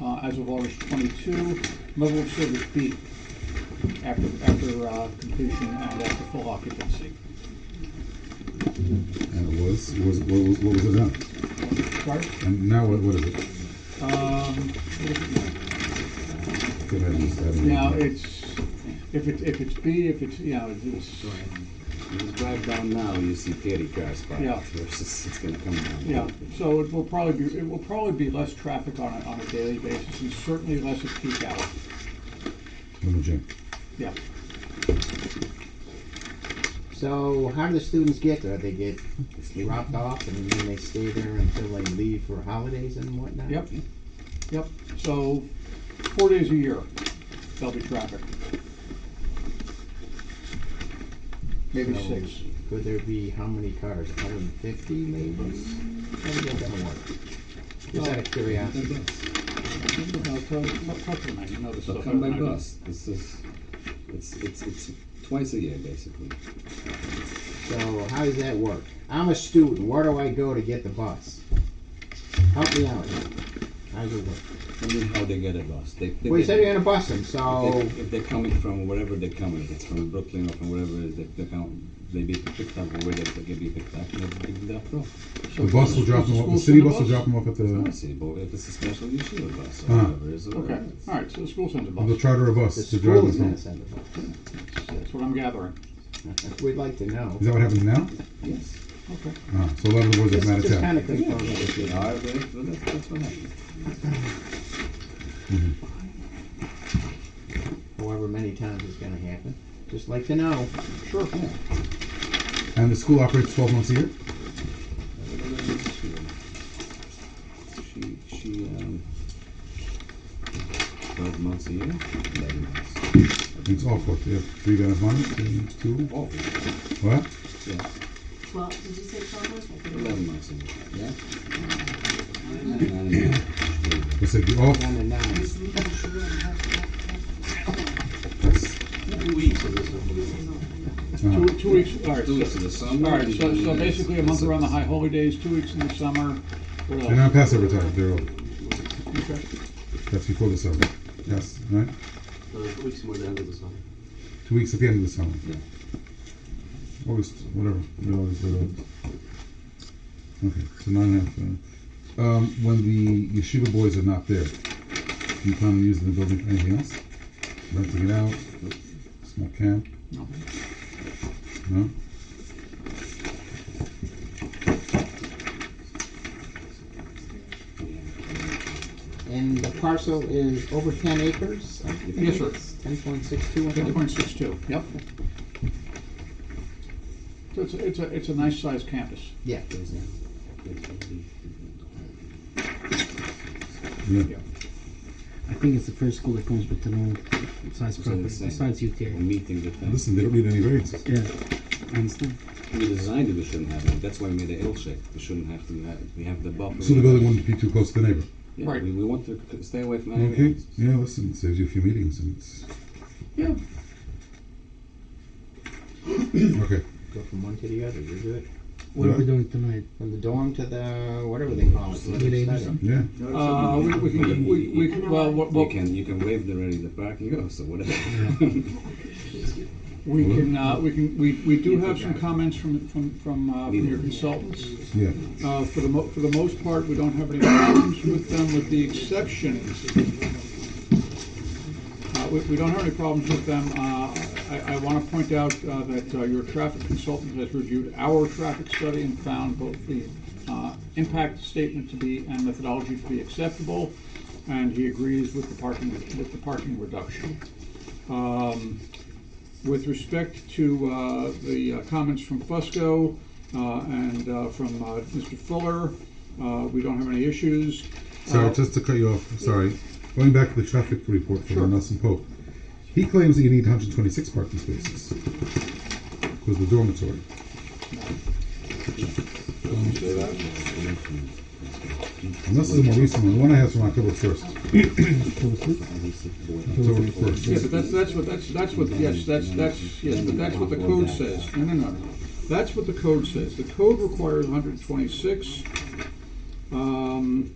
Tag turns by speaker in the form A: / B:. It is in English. A: uh, as of August 22, level of service B, after, after uh, completion and after full occupancy.
B: And it was, was, what was, what was it then?
A: Sorry?
B: And now what, what is it?
A: Um, what is it now?
B: Could I just have it?
A: Now, it's, if it, if it's B, if it's, you know, it's,
C: You drive down now, you see thirty cars parked
A: Yeah.
C: versus it's gonna come down.
A: yeah, so it will probably be, it will probably be less traffic on a, on a daily basis and certainly less at peak hour,
B: From the gym.
A: yeah.
D: So how do the students get there? They get
C: It's legal.
D: dropped off and then they stay there until they leave for holidays and whatnot?
A: Yep, yep, so four days a year, there'll be traffic. Maybe
D: So
A: six.
D: Could there be how many cars? Hundred and fifty maybe? How do you think that would work? Just out of curiosity.
A: No, it's, uh, not tough to make, you know this
C: So
A: stuff.
C: come by
A: I- I-
C: bus, this is, it's, it's, it's twice a year basically.
D: So how does that work? I'm a student. Where do I go to get the bus? Help me out. here. How does it work?
C: I mean, how they get a bus, they. they
D: Well, you
C: get-
D: said you're gonna bus them, so
C: If they- if they're coming from wherever they're coming, if it's from Brooklyn or from wherever it is, they, they come, they be picked up or where they, they can be picked up, and they can be dropped off.
A: so
B: The bus will
A: does-
B: drop
A: does
B: them off, the
A: school
B: city
A: send a
B: bus will drop them off at
C: I
B: the,
C: see, but if it's a special issue a bus or
B: Uh-huh.
C: whatever it is. or
A: Okay,
C: whatever it is.
A: all right, so the school sends a
B: they'll
A: bus,
B: charter a bus
D: the
B: to drive
D: school
B: them
D: is
B: from.
D: gonna
B: Is
D: send the bus.
A: that's what I'm gathering.
D: We'd like to know.
B: that what happens now?
C: Yes.
A: Okay.
B: Uh, so in other words,
D: Just,
B: it's not a
D: just
B: town.
D: kinda confirm it with you.
C: All right, well, that's, that's what happens.
D: however many times it's gonna happen. Just like to know.
A: Sure.
B: And the school operates twelve months a year?
C: She, she, um, twelve months a year, eleven months.
B: It's all for, you have three guys on it, and two,
C: Oh,
B: what?
C: yes,
E: Well, did you say twelve months? I couldn't-
C: eleven months a year, yeah? Nine and a half.
B: It's like, all,
D: One and nine.
B: that's,
A: Two,
B: uh,
A: two weeks, all right.
C: Two
A: so-
C: weeks in the summer.
A: All right, so, so
C: and-
A: basically a month around the high holidays, two weeks in the summer, what
B: they're
A: else?
B: not Passover time, they're, all-
A: Okay.
B: that's before the summer. Yes, right?
F: Uh, weeks more than end of the summer.
B: Two weeks at the end of the summer.
C: Yeah.
B: August, whatever. middle of August, late August. Okay, so nine and a half. uh, Um, when the yeshiva boys are not there, do you plan on using the building for anything else? Renting it out? Small camp?
A: No.
B: No?
D: And the parcel is over ten acres? I think
A: Yes, sir.
D: it's Ten point six two.
A: Ten point six two, yep. So it's, a- it's a, it's a nice sized campus.
D: Yeah.
B: Yeah.
A: Yeah.
G: I think it's the first school that comes with their own
C: It's
G: size
C: all the
G: property,
C: same.
G: besides you
C: We're
G: there.
C: Meeting the thing.
B: Listen, they don't need any variances.
G: Yeah, I understand.
C: We designed it, we shouldn't have it, that's why we made the L shape, we shouldn't have to, have- we have the buffer.
B: So the building wouldn't be too close to the neighbor.
C: Yeah,
A: Right.
C: we, we want to c- stay away from
B: Okay?
C: animals.
B: Yeah, listen, it saves you a few meetings and it's.
A: Yeah.
B: Okay.
D: Go from one to the other, you're good.
G: What are
B: Yeah.
G: we doing tonight?
D: From the dorm to the, whatever they call it. so
G: Good
D: it's
G: evening.
D: study.
B: Yeah.
A: Uh, we, we can, we, we, can- well, what,
C: You
A: what,
C: can, you can waive the ready, the parking, oh, so whatever.
A: we can, uh, we can, we, we do have some comments from, from, from, uh, from your consultants.
B: Yeah.
A: Uh, for the mo, for the most part, we don't have any problems with them, with the exception. Uh, we, we don't have any problems with them. Uh, I, I wanna point out, uh, that, uh, your traffic consultant has reviewed our traffic study and found both the, uh, impact statement to be, and methodology to be acceptable, and he agrees with the parking, with the parking reduction. Um, with respect to uh, the uh, comments from Fusco uh, and uh, from uh, Mr. Fuller, uh, we don't have any issues.
B: Sorry,
A: Uh,
B: just to cut you off. Sorry. Going back to the traffic report
A: Sure.
B: from Nelson Pope. He claims that you need 126 parking spaces because the dormitory. And this is a more recent one. The one I have is from October 1st. October 1st.
A: Yeah, but that's, that's what, that's, that's what, yes, that's, that's, yes, but that's what the code says. No, no, no, no. That's what the code says. The code requires 126. Um,